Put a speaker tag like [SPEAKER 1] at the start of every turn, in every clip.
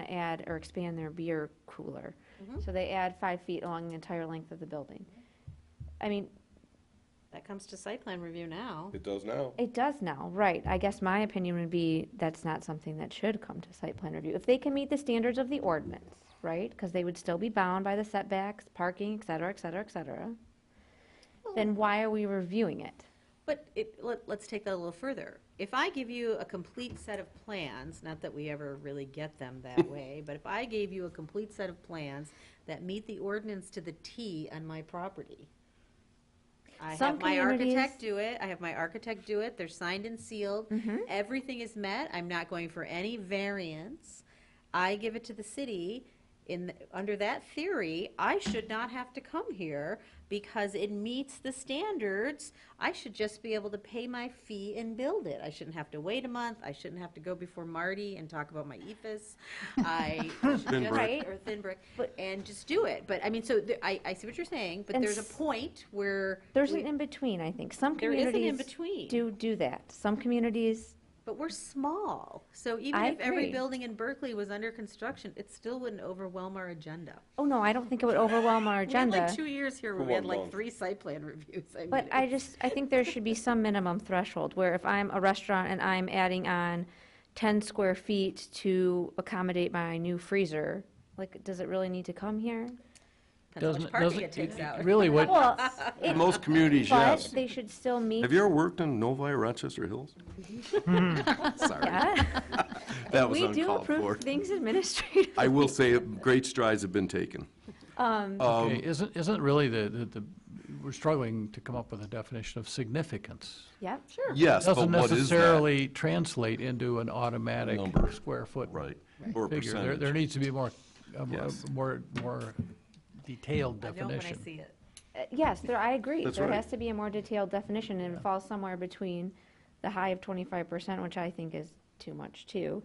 [SPEAKER 1] to add or expand their beer cooler.
[SPEAKER 2] Mhm.
[SPEAKER 1] So they add five feet along the entire length of the building. I mean,
[SPEAKER 2] That comes to site plan review now.
[SPEAKER 3] It does now.
[SPEAKER 1] it does now, right. I guess my opinion would be that's not something that should come to site plan review. If they can meet the standards of the ordinance, right? Because they would still be bound by the setbacks, parking, et cetera, et cetera, et cetera. Then why are we reviewing it?
[SPEAKER 2] But it, let, let's take that a little further. If I give you a complete set of plans, not that we ever really get them that way, but if I gave you a complete set of plans that meet the ordinance to the T on my property, I
[SPEAKER 1] Some
[SPEAKER 2] have my
[SPEAKER 1] communities-
[SPEAKER 2] architect do it, I have my architect do it, they're signed and sealed,
[SPEAKER 1] Mm-hmm.
[SPEAKER 2] everything is met, I'm not going for any variance. I give it to the city, in, under that theory, I should not have to come here because it meets the standards. I should just be able to pay my fee and build it. I shouldn't have to wait a month. I shouldn't have to go before Marty and talk about my E EFS. I should
[SPEAKER 3] Thin
[SPEAKER 2] just-
[SPEAKER 1] brick.
[SPEAKER 2] Or thin brick,
[SPEAKER 1] But-
[SPEAKER 2] and just do it. But I mean, so there- I, I see what you're saying, but
[SPEAKER 1] And
[SPEAKER 2] there's a
[SPEAKER 1] s-
[SPEAKER 2] point where.
[SPEAKER 1] There's
[SPEAKER 2] we-
[SPEAKER 1] an in-between, I think. Some
[SPEAKER 2] There is an
[SPEAKER 1] communities
[SPEAKER 2] in-between.
[SPEAKER 1] do do that. Some communities
[SPEAKER 2] But we're small, so even
[SPEAKER 1] I
[SPEAKER 2] if every
[SPEAKER 1] agree.
[SPEAKER 2] building in Berkeley was under construction, it still wouldn't overwhelm our agenda.
[SPEAKER 1] Oh, no, I don't think it would overwhelm our
[SPEAKER 2] We had
[SPEAKER 1] agenda.
[SPEAKER 2] like two years here where
[SPEAKER 3] For
[SPEAKER 2] we had
[SPEAKER 3] one
[SPEAKER 2] like
[SPEAKER 3] month.
[SPEAKER 2] three site plan reviews. I
[SPEAKER 1] But
[SPEAKER 2] mean,
[SPEAKER 1] I
[SPEAKER 2] it's-
[SPEAKER 1] just, I think there should be some minimum threshold where if I'm a restaurant and I'm adding on 10 square feet to accommodate my new freezer, like, does it really need to come here?
[SPEAKER 2] Depends how
[SPEAKER 4] Doesn't-
[SPEAKER 2] much parking
[SPEAKER 4] doesn't-
[SPEAKER 2] it takes out.
[SPEAKER 4] Really, what,
[SPEAKER 1] Well, it-
[SPEAKER 3] Most communities,
[SPEAKER 1] but
[SPEAKER 3] yes.
[SPEAKER 1] they should still meet.
[SPEAKER 3] Have you ever worked in Novi, Rochester Hills? Sorry,
[SPEAKER 1] Hmm. Yeah.
[SPEAKER 3] that was
[SPEAKER 1] We do
[SPEAKER 3] uncalled for.
[SPEAKER 1] approve things administrative.
[SPEAKER 3] I will say, great strides have been taken.
[SPEAKER 4] okay,
[SPEAKER 3] um,
[SPEAKER 4] isn't, isn't really the, the, the- we're struggling to come up with a definition of significance.
[SPEAKER 1] Yep.
[SPEAKER 3] Yes, but
[SPEAKER 4] Doesn't
[SPEAKER 3] what is that?
[SPEAKER 4] necessarily translate into an automatic
[SPEAKER 3] Number.
[SPEAKER 4] square foot
[SPEAKER 3] Right, or a
[SPEAKER 4] figure. There, there
[SPEAKER 3] percentage.
[SPEAKER 4] needs to be more, a more-
[SPEAKER 3] Yes.
[SPEAKER 4] more, more detailed
[SPEAKER 2] I know when I
[SPEAKER 4] definition.
[SPEAKER 2] see it.
[SPEAKER 1] Uh, Yes, there, I agree.
[SPEAKER 3] That's
[SPEAKER 1] There
[SPEAKER 3] right.
[SPEAKER 1] has to be a more detailed definition, and it falls somewhere between the high of twenty-five percent, which I think is too much too,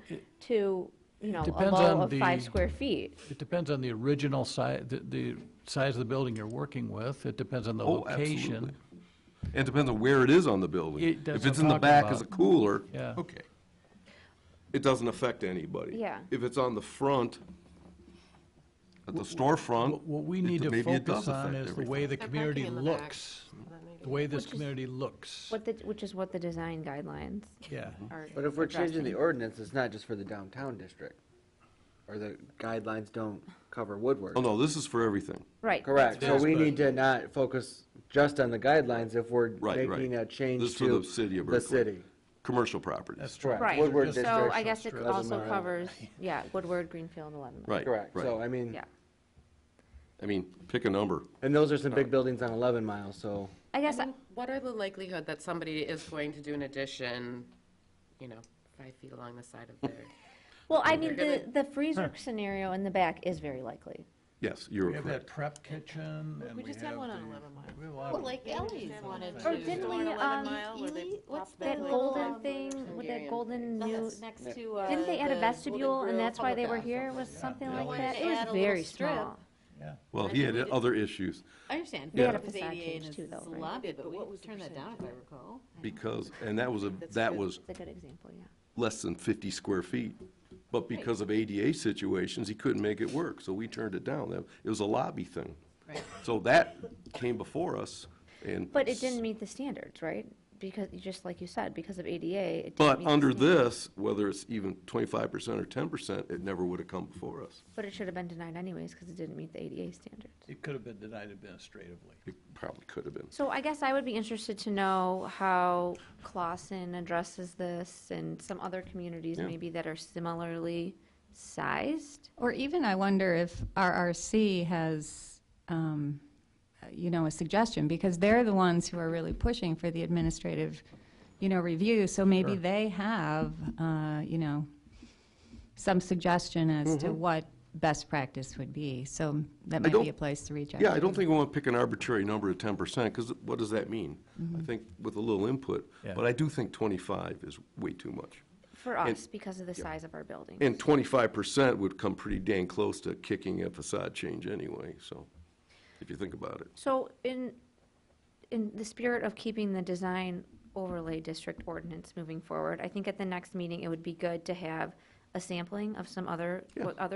[SPEAKER 1] to, you know, a
[SPEAKER 4] depends
[SPEAKER 1] low
[SPEAKER 4] on
[SPEAKER 1] of
[SPEAKER 4] the-
[SPEAKER 1] five square feet.
[SPEAKER 4] It depends on the original size, the, the size of the building you're working with. It depends on the
[SPEAKER 3] Oh,
[SPEAKER 4] location.
[SPEAKER 3] absolutely. It depends on where it is on the building.
[SPEAKER 4] It- that's
[SPEAKER 3] If
[SPEAKER 4] what
[SPEAKER 3] it's in
[SPEAKER 4] I'm
[SPEAKER 3] the
[SPEAKER 4] talking
[SPEAKER 3] back
[SPEAKER 4] about.
[SPEAKER 3] as a cooler,
[SPEAKER 4] Yeah.
[SPEAKER 3] okay. It doesn't affect anybody.
[SPEAKER 1] Yeah.
[SPEAKER 3] If it's on the front, at the storefront,
[SPEAKER 4] What what we
[SPEAKER 3] it-
[SPEAKER 4] need to
[SPEAKER 3] maybe it does
[SPEAKER 4] focus on
[SPEAKER 3] affect
[SPEAKER 4] is the way the
[SPEAKER 3] everything.
[SPEAKER 4] community
[SPEAKER 5] in the back.
[SPEAKER 4] looks, the way this community looks.
[SPEAKER 1] What the, which is what the design guidelines
[SPEAKER 4] Yeah.
[SPEAKER 1] are.
[SPEAKER 5] But if we're changing the
[SPEAKER 1] addressing.
[SPEAKER 5] ordinance, it's not just for the downtown district, or the guidelines don't cover Woodward.
[SPEAKER 3] Oh, no, this is for everything.
[SPEAKER 1] Right.
[SPEAKER 5] Correct, so
[SPEAKER 4] Yes,
[SPEAKER 5] we
[SPEAKER 4] but-
[SPEAKER 5] need to not focus just on the guidelines if we're
[SPEAKER 3] Right, right.
[SPEAKER 5] making a
[SPEAKER 3] This
[SPEAKER 5] change
[SPEAKER 3] is for
[SPEAKER 5] to
[SPEAKER 3] the city of
[SPEAKER 5] the
[SPEAKER 3] Berkeley.
[SPEAKER 5] city.
[SPEAKER 3] Commercial properties.
[SPEAKER 4] true.
[SPEAKER 5] Correct,
[SPEAKER 1] Right.
[SPEAKER 5] Woodward
[SPEAKER 4] So
[SPEAKER 5] district.
[SPEAKER 1] So I guess it
[SPEAKER 4] District.
[SPEAKER 5] doesn't
[SPEAKER 1] also
[SPEAKER 5] matter.
[SPEAKER 1] covers, yeah, Woodward, Greenfield, Eleven.
[SPEAKER 3] Right, right.
[SPEAKER 5] Correct, so I mean,
[SPEAKER 1] Yeah.
[SPEAKER 3] I mean, pick a number.
[SPEAKER 5] and those are some big buildings on eleven miles, so.
[SPEAKER 1] I guess,
[SPEAKER 5] I-
[SPEAKER 1] I-
[SPEAKER 5] What are
[SPEAKER 6] the likelihood that somebody is going to do an addition, you know, five feet along the side of their,
[SPEAKER 1] well, I mean, the, the
[SPEAKER 6] They're
[SPEAKER 1] freezer scenario in the back is very likely.
[SPEAKER 3] Yes, you're
[SPEAKER 4] We have that
[SPEAKER 3] correct.
[SPEAKER 4] prep kitchen and we
[SPEAKER 5] just had
[SPEAKER 4] have
[SPEAKER 5] one on
[SPEAKER 4] the-
[SPEAKER 5] 11 Mile.
[SPEAKER 4] we have a lot of-
[SPEAKER 2] Ellie's
[SPEAKER 5] wanted
[SPEAKER 1] Or didn't we, um,
[SPEAKER 2] what's
[SPEAKER 1] That golden thing, with that
[SPEAKER 6] Hungarian
[SPEAKER 1] golden new,
[SPEAKER 2] next to, uh.
[SPEAKER 1] didn't they add a
[SPEAKER 2] the
[SPEAKER 1] vestibule
[SPEAKER 2] Golden
[SPEAKER 1] and that's
[SPEAKER 2] Grill
[SPEAKER 1] why they were
[SPEAKER 2] public
[SPEAKER 1] here,
[SPEAKER 2] bathroom?
[SPEAKER 1] was something
[SPEAKER 2] Yeah.
[SPEAKER 1] like
[SPEAKER 2] Why
[SPEAKER 1] that?
[SPEAKER 2] did
[SPEAKER 1] It
[SPEAKER 2] they
[SPEAKER 1] was
[SPEAKER 2] add a little
[SPEAKER 1] very
[SPEAKER 2] strip?
[SPEAKER 1] small.
[SPEAKER 4] Yeah.
[SPEAKER 3] Well, he had other issues
[SPEAKER 2] I understand.
[SPEAKER 1] They had
[SPEAKER 2] but
[SPEAKER 1] a
[SPEAKER 2] it was
[SPEAKER 1] facade
[SPEAKER 2] 88
[SPEAKER 1] change
[SPEAKER 2] and
[SPEAKER 1] too,
[SPEAKER 2] it's
[SPEAKER 1] though,
[SPEAKER 2] a
[SPEAKER 1] right?
[SPEAKER 2] lobby, but we turned that down if I recall.
[SPEAKER 3] because, and that was, a that was
[SPEAKER 1] It's a good example, yeah.
[SPEAKER 3] less than 50 square feet. But because of ADA situations, he couldn't make it work, so we turned it down. That- It was a lobby thing.
[SPEAKER 2] Right.
[SPEAKER 3] So that came before us, and.
[SPEAKER 1] But it didn't meet the standards, right? Because, just like you said, because of ADA, it didn't meet
[SPEAKER 3] But
[SPEAKER 1] the
[SPEAKER 3] under
[SPEAKER 1] standards.
[SPEAKER 3] this, whether it's even 25% or 10%, it never would have come before us.
[SPEAKER 1] But it should have been denied anyways, because it didn't meet the ADA standards.
[SPEAKER 4] It could have been denied administratively.
[SPEAKER 3] It probably could have been.
[SPEAKER 1] So I guess I would be interested to know how Clausen addresses this and some other communities
[SPEAKER 3] Yeah.
[SPEAKER 1] maybe that are similarly sized.
[SPEAKER 7] Or even I wonder if RRC has, um, you know, a suggestion, because they're the ones who are really pushing for the administrative, you know, review. So maybe they have, uh, you know, some suggestion as to what best practice would be. So that might
[SPEAKER 3] Mm-hmm. don't-
[SPEAKER 7] be a place to reach out.
[SPEAKER 3] Yeah, I
[SPEAKER 7] to.
[SPEAKER 3] don't think we want to pick an arbitrary number of ten percent, because what does that mean? I think with a little input,
[SPEAKER 4] Yeah.
[SPEAKER 3] but I do think twenty-five is way too much.
[SPEAKER 1] For us, because of the size of our building.
[SPEAKER 3] And twenty-five percent would come pretty dang close to kicking a facade change anyway, so, if you think about it.
[SPEAKER 1] So in, in the spirit of keeping the design overlay district ordinance moving forward, I think at the next meeting, it would be good to have a sampling of some other, what other